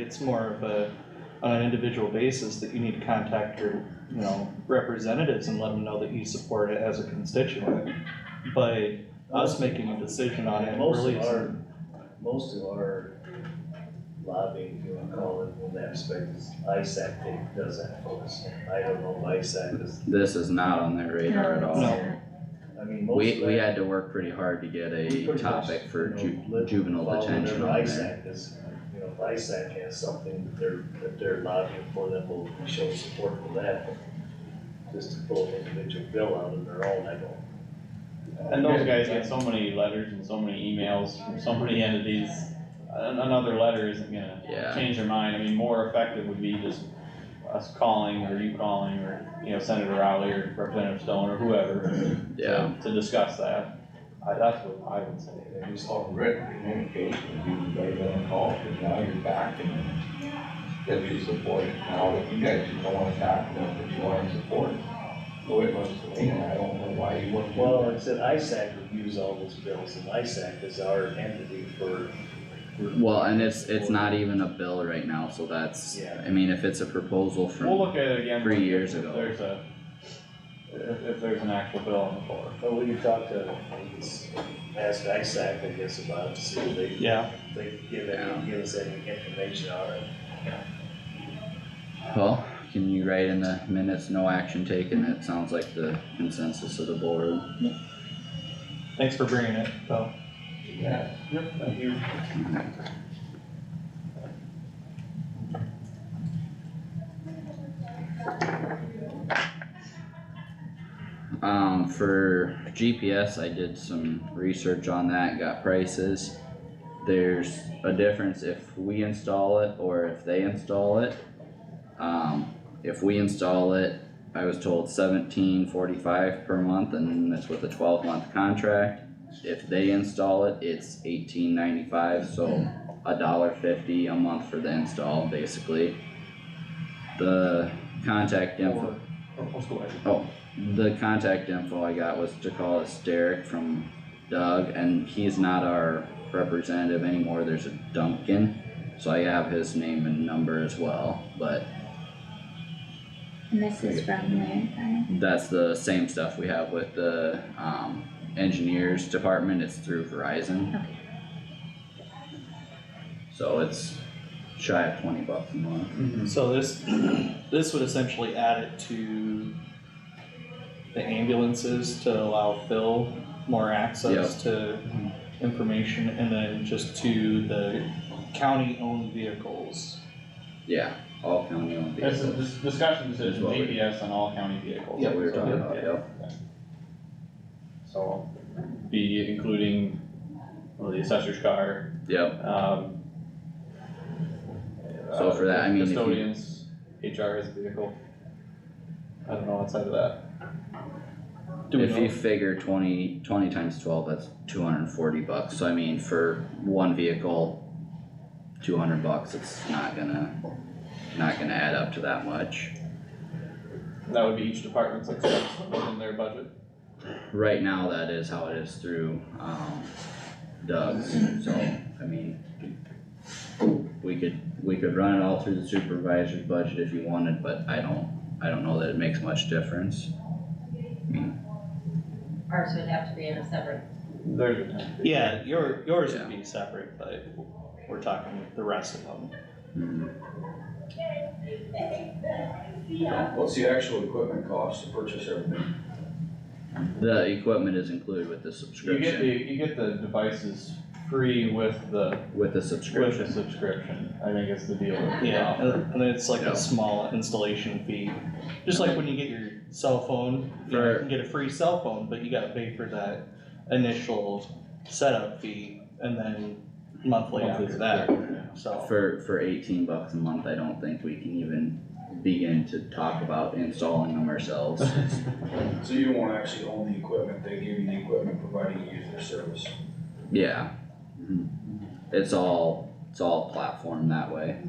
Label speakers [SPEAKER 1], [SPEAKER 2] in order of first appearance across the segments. [SPEAKER 1] It's more of a, on an individual basis that you need to contact your, you know, representatives and let them know that you support it as a constituent. By us making a decision on it,
[SPEAKER 2] Most
[SPEAKER 1] really
[SPEAKER 2] of our,
[SPEAKER 1] isn't-
[SPEAKER 2] most of our lobbying, if you wanna call it, in that respect, is ISAC that does that for us. I don't know if ISAC is,
[SPEAKER 3] This is not on their radar at all.
[SPEAKER 1] No.
[SPEAKER 2] I mean, most of
[SPEAKER 3] We,
[SPEAKER 2] that.
[SPEAKER 3] we had to work pretty hard to get
[SPEAKER 2] we
[SPEAKER 3] a
[SPEAKER 2] pretty much,
[SPEAKER 3] topic for
[SPEAKER 2] you
[SPEAKER 3] ju-
[SPEAKER 2] know, let-
[SPEAKER 3] juvenile
[SPEAKER 2] follow
[SPEAKER 3] detention
[SPEAKER 2] whatever
[SPEAKER 3] on there.
[SPEAKER 2] ISAC is, you know, if ISAC has something that they're, that they're lobbying for, then we'll show support for that. but Just to pull an individual bill out of their own, I don't.
[SPEAKER 4] And those guys get so many letters and so many emails from so many entities, an- another letter isn't gonna
[SPEAKER 3] Yeah,
[SPEAKER 4] change their mind, I mean, more effective would be just us calling or you calling or, you know, Senator Rowley or Representative Stone or whoever. to-
[SPEAKER 3] yeah,
[SPEAKER 4] To discuss that, I, that's what I would say.
[SPEAKER 5] And just already communication, you made that call, and now you're back and if you support it now, if you guys just don't wanna tackle it, but you wanna support it. The way it looks to me, and I don't know why you wouldn't. do
[SPEAKER 2] Well,
[SPEAKER 5] that.
[SPEAKER 2] it said ISAC reviews all those bills, and ISAC is our entity for.
[SPEAKER 3] well, and it's, it's not even a bill right now, so that's,
[SPEAKER 2] Yeah.
[SPEAKER 3] I mean, if it's a proposal
[SPEAKER 4] We'll
[SPEAKER 3] from,
[SPEAKER 4] look at it again.
[SPEAKER 3] Three years
[SPEAKER 4] if
[SPEAKER 3] ago.
[SPEAKER 4] There's a, if, if there's an actual bill on the floor.
[SPEAKER 2] Well, we can talk to, we can s- ask ISAC, I guess, about it, see if they,
[SPEAKER 1] yeah,
[SPEAKER 2] if they give
[SPEAKER 3] Yeah.
[SPEAKER 2] any, give us any information on it.
[SPEAKER 3] well, can you write in the minutes, no action taken, it sounds like the consensus of the board.
[SPEAKER 1] thanks for bringing it, though.
[SPEAKER 5] Yeah,
[SPEAKER 2] Yep. You,
[SPEAKER 3] Um, for GPS, I did some research on that, got prices. There's a difference if we install it or if they install it. Um, if we install it, I was told seventeen forty-five per month and that's with a twelve month contract. If they install it, it's eighteen ninety-five, so a dollar fifty a month for the install, basically. The contact info.
[SPEAKER 1] Or, or let's go ahead.
[SPEAKER 3] Oh, the contact info I got was to call us Derek from Doug, and he's not our representative anymore, there's a Duncan. So I have his name and number as well, but
[SPEAKER 6] And this is from where, Kyle?
[SPEAKER 3] that's the same stuff we have with the, um, engineers department, it's through Verizon.
[SPEAKER 6] Okay.
[SPEAKER 3] So it's shy of twenty bucks a month.
[SPEAKER 2] Hmm.
[SPEAKER 1] So this, this would essentially add it to the ambulances to allow Phil more access to
[SPEAKER 2] Hmm.
[SPEAKER 1] information and then just to the county-owned vehicles.
[SPEAKER 3] Yeah, all county owned
[SPEAKER 4] This
[SPEAKER 3] vehicles.
[SPEAKER 4] is, this discussion decision,
[SPEAKER 3] That's what we-
[SPEAKER 4] GPS on all county vehicles.
[SPEAKER 3] Yeah, we were talking about,
[SPEAKER 4] Yeah.
[SPEAKER 3] yep.
[SPEAKER 4] So, be including, well, the assessor's car,
[SPEAKER 3] Yep,
[SPEAKER 4] um.
[SPEAKER 3] So for that, I mean, if you-
[SPEAKER 4] Custodians, HR as a vehicle. I don't know outside of that.
[SPEAKER 1] Do we
[SPEAKER 3] If you
[SPEAKER 1] know?
[SPEAKER 3] figure 20 20 times twelve, that's two hundred and forty bucks, so I mean, for one vehicle, two hundred bucks, it's not gonna, not gonna add up to that much.
[SPEAKER 4] That would be each department's expense within their budget.
[SPEAKER 3] Right now, that is how it is through, um, Doug's, so, I mean, we could, we could run it all through the supervisor's budget if you wanted, but I don't, I don't know that it makes much difference.
[SPEAKER 7] Ours would have to be in a separate,
[SPEAKER 4] There's.
[SPEAKER 1] Yeah, your, yours
[SPEAKER 3] Yeah.
[SPEAKER 1] would be separate, but we're talking the rest of them.
[SPEAKER 3] Mhm.
[SPEAKER 5] Mm-hmm. what's the actual equipment cost to purchase everything?
[SPEAKER 3] The equipment is included with the
[SPEAKER 4] You get the,
[SPEAKER 3] subscription,
[SPEAKER 4] you get the devices free with
[SPEAKER 3] with
[SPEAKER 4] the,
[SPEAKER 3] the
[SPEAKER 4] with the
[SPEAKER 3] subscription,
[SPEAKER 4] subscription, I think is the deal.
[SPEAKER 1] Yeah, and- and it's like
[SPEAKER 3] Yeah.
[SPEAKER 1] a small installation fee, just like when you get your cell phone, you know, you can get a free cell phone, but you gotta pay for that initial setup fee and then monthly after that, so.
[SPEAKER 3] For, for eighteen bucks a month, I don't think we can even begin to talk about installing them ourselves.
[SPEAKER 5] So you won't actually own the equipment, they give you the equipment, providing you use their service.
[SPEAKER 3] Yeah. Mm-hmm. It's all, it's all platform that way.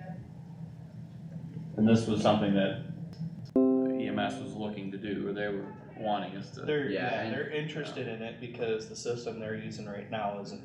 [SPEAKER 4] E And this was something that EMS was looking to do, or they were wanting us to.
[SPEAKER 1] They're,
[SPEAKER 3] Yeah,
[SPEAKER 1] yeah,
[SPEAKER 3] and-
[SPEAKER 1] they're interested in it because the system they're using right now isn't